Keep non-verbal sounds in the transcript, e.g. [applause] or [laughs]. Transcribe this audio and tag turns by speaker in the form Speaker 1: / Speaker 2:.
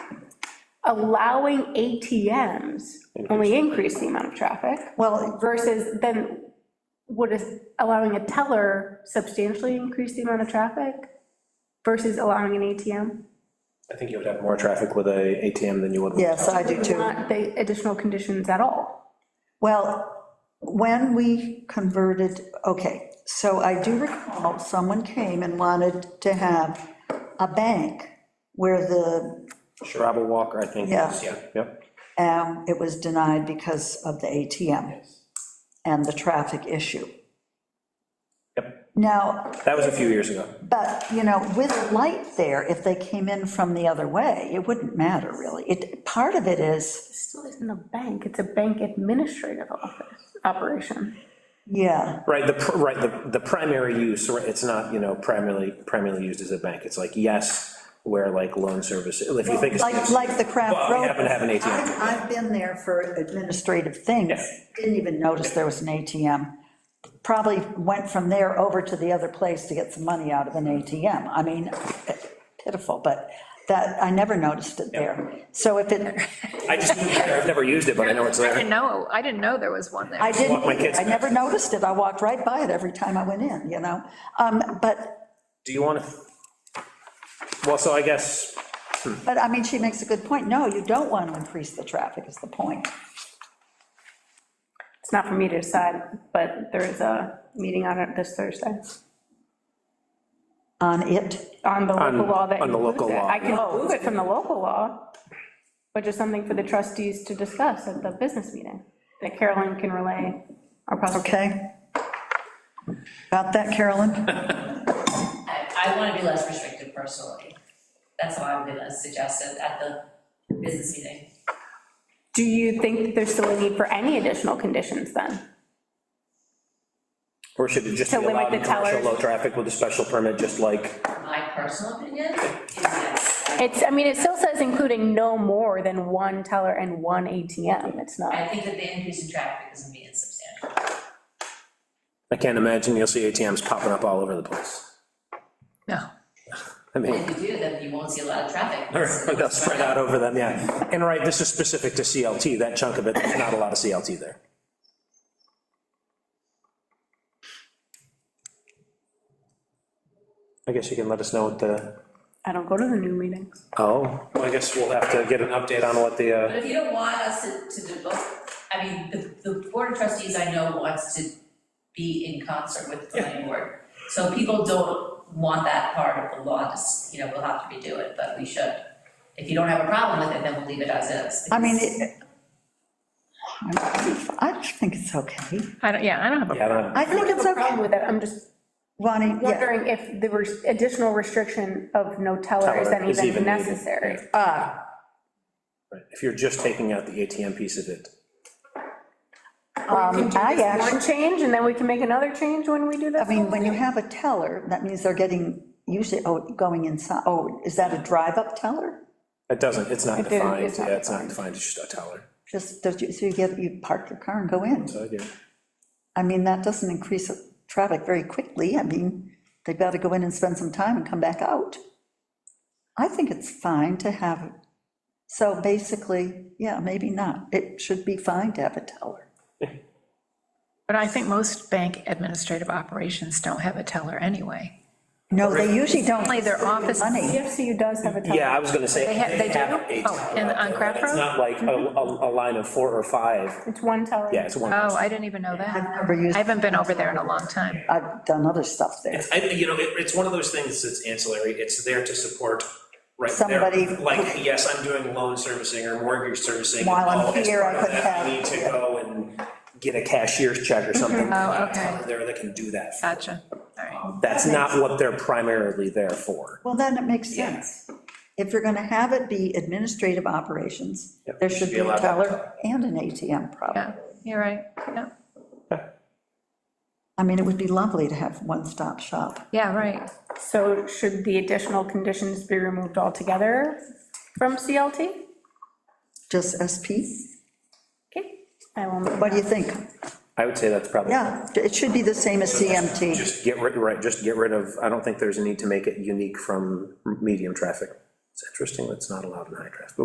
Speaker 1: allowing ATMs only increase the amount of traffic
Speaker 2: Well,
Speaker 1: versus then would is allowing a teller substantially increase the amount of traffic versus allowing an ATM?
Speaker 3: I think you would have more traffic with a ATM than you would with.
Speaker 2: yes, I do too.
Speaker 1: Not the additional conditions at all.
Speaker 2: Well, when we converted, okay, so I do recall someone came and wanted to have a bank where the,
Speaker 3: Sharaba Walker, I think.
Speaker 2: Yeah.
Speaker 3: Yep.
Speaker 2: um, it was denied because of the ATM and the traffic issue.
Speaker 3: Yep.
Speaker 2: Now,
Speaker 3: That was a few years ago.
Speaker 2: but, you know, with light there, if they came in from the other way, it wouldn't matter really. It, part of it is,
Speaker 1: It still isn't a bank, it's a bank administrative office operation.
Speaker 2: yeah,
Speaker 3: Right, the, pr- right, the, the primary use, or it's not, you know, primarily, primarily used as a bank. It's like, yes, where like loan service, if you think. it's-
Speaker 2: like, like the
Speaker 3: Well,
Speaker 2: craft
Speaker 3: we
Speaker 2: road.
Speaker 3: happen to have an ATM.
Speaker 2: I've, I've been there for administrative things,
Speaker 3: Yeah.
Speaker 2: didn't even notice there was an ATM. Probably went from there over to the other place to get some money out of an ATM. I mean, pitiful, but that, I never noticed it there. So if it,
Speaker 3: I just, I've never used it, but I know it's
Speaker 4: I
Speaker 3: there.
Speaker 4: didn't know, I didn't know there was one there.
Speaker 2: I didn't,
Speaker 3: Walk my kids
Speaker 2: I never noticed it, I walked right by it every time I went in, you know? Um, But,
Speaker 3: Do you want to? Well, so I guess,
Speaker 2: but I mean, she makes a good point, no, you don't want to increase the traffic is the point.
Speaker 1: It's not for me to decide, but there is a meeting on it this Thursday,
Speaker 2: On it,
Speaker 1: on the local
Speaker 3: On-
Speaker 1: law that.
Speaker 3: on the local
Speaker 1: includes it.
Speaker 3: law,
Speaker 1: I can move it from the local law, but just something for the trustees to discuss at the business meeting, that Carolyn can relay our possible.
Speaker 2: okay? About that, Carolyn?
Speaker 5: I, I wanna be less restrictive personally. That's why I'm gonna suggest it at the business meeting.
Speaker 1: Do you think that there's still a need for any additional conditions then?
Speaker 3: or should it just be
Speaker 1: To limit
Speaker 3: allowed in
Speaker 1: the
Speaker 3: commercial
Speaker 1: tellers.
Speaker 3: low traffic with a special permit, just like,
Speaker 5: My personal opinion is yes.
Speaker 1: It's, I mean, it still says including no more than one teller and one ATM, it's
Speaker 5: I
Speaker 1: not.
Speaker 5: think that the increase in traffic is gonna be insubstantial.
Speaker 3: I can't imagine you'll see ATMs popping up all over the place.
Speaker 4: No.
Speaker 3: I mean.
Speaker 5: If you do, then you won't see a lot of traffic.
Speaker 3: Or [laughs] They'll spread out over them, yeah. And right, this is specific to CLT, that chunk of it, there's not a lot of CLT there. I guess you can let us know what the,
Speaker 1: I don't go to the new meetings.
Speaker 3: oh, well, I guess we'll have to get an update on what the, uh,
Speaker 5: But if you don't want us to, to devote, I mean, the, the board of trustees I know wants to be in concert with the planning board. So people don't want that part of the law, just, you know, we'll have to redo it, but we should. If you don't have a problem with it, then we'll leave it as is.
Speaker 2: I mean,
Speaker 5: because-
Speaker 2: it- I think it's okay.
Speaker 4: I don't, yeah, I don't have a
Speaker 3: yeah, I don't know.
Speaker 2: I think it's
Speaker 1: No problem
Speaker 2: okay.
Speaker 1: with it, I'm just
Speaker 2: Bonnie, yeah,
Speaker 1: wondering if the res- additional restriction of no teller is
Speaker 3: Teller
Speaker 1: then
Speaker 3: is
Speaker 1: even
Speaker 3: even needed.
Speaker 1: necessary.
Speaker 2: ah,
Speaker 3: Right, If you're just taking out the ATM piece of it,
Speaker 2: um, I
Speaker 1: One
Speaker 2: actually,
Speaker 1: change, and then we can make another change when we do this.
Speaker 2: I mean, when you have a teller, that means they're getting, usually, oh, going inside, oh, is that a drive-up teller?
Speaker 3: it doesn't, it's not
Speaker 1: It didn't-
Speaker 3: defined,
Speaker 1: it's not
Speaker 3: yeah, it's not defined, it's just a teller.
Speaker 2: Just, does you- so you get, you park your car and go in.
Speaker 3: So, yeah.
Speaker 2: I mean, that doesn't increase traffic very quickly. I mean, they've got to go in and spend some time and come back out. I think it's fine to have, so basically, yeah, maybe not. It should be fine to have a teller.
Speaker 4: But I think most bank administrative operations don't have a teller anyway. Oh,
Speaker 2: No, they usually don't.
Speaker 4: Only their office-
Speaker 2: Money.
Speaker 1: CFCU does have a teller.
Speaker 3: Yeah, I was gonna say.
Speaker 4: They ha- they do?
Speaker 3: a
Speaker 4: Oh,
Speaker 3: teller
Speaker 4: and
Speaker 3: out
Speaker 4: on
Speaker 3: there,
Speaker 4: Craft
Speaker 3: but It's
Speaker 4: Road?
Speaker 3: not like a, a, a line of four or five,
Speaker 1: It's one teller.
Speaker 3: yeah, it's one.
Speaker 4: Oh, I didn't even know that.
Speaker 2: Never used-
Speaker 4: I haven't been over there in a long time.
Speaker 2: I've done other stuff there.
Speaker 3: I, you know, it, it's one of those things that's ancillary, it's there to support, right? there.
Speaker 2: Somebody-
Speaker 3: Like, yes, I'm doing loan servicing or mortgage servicing.
Speaker 2: While I'm
Speaker 3: Oh, as
Speaker 2: here, I
Speaker 3: part of
Speaker 2: could
Speaker 3: that,
Speaker 2: have-
Speaker 3: I need to go and get a cashier's check or something.
Speaker 4: Oh, okay. Oh,
Speaker 3: There, that can do that.
Speaker 4: Gotcha. All right.
Speaker 3: That's not what they're primarily there for.
Speaker 2: Well, then it makes sense. If you're going to have it be administrative operations,
Speaker 3: Yep,
Speaker 2: there
Speaker 3: should
Speaker 2: should
Speaker 3: be
Speaker 2: be a
Speaker 3: allowed to
Speaker 2: teller and an ATM
Speaker 4: Yeah,
Speaker 2: probably.
Speaker 4: you're right. Yeah,
Speaker 2: I mean, it would be lovely to have one-stop shop.
Speaker 4: yeah, right.
Speaker 1: So should the additional conditions be removed altogether from CLT?
Speaker 2: Just SP?
Speaker 1: Okay, I will move.
Speaker 2: What do you think?
Speaker 3: I would say that's probably.
Speaker 2: Yeah, it should be the same as CMT.
Speaker 3: Just get rid, right, just get rid of, I don't think there's a need to make it unique from medium traffic. It's interesting that's not allowed in high traffic,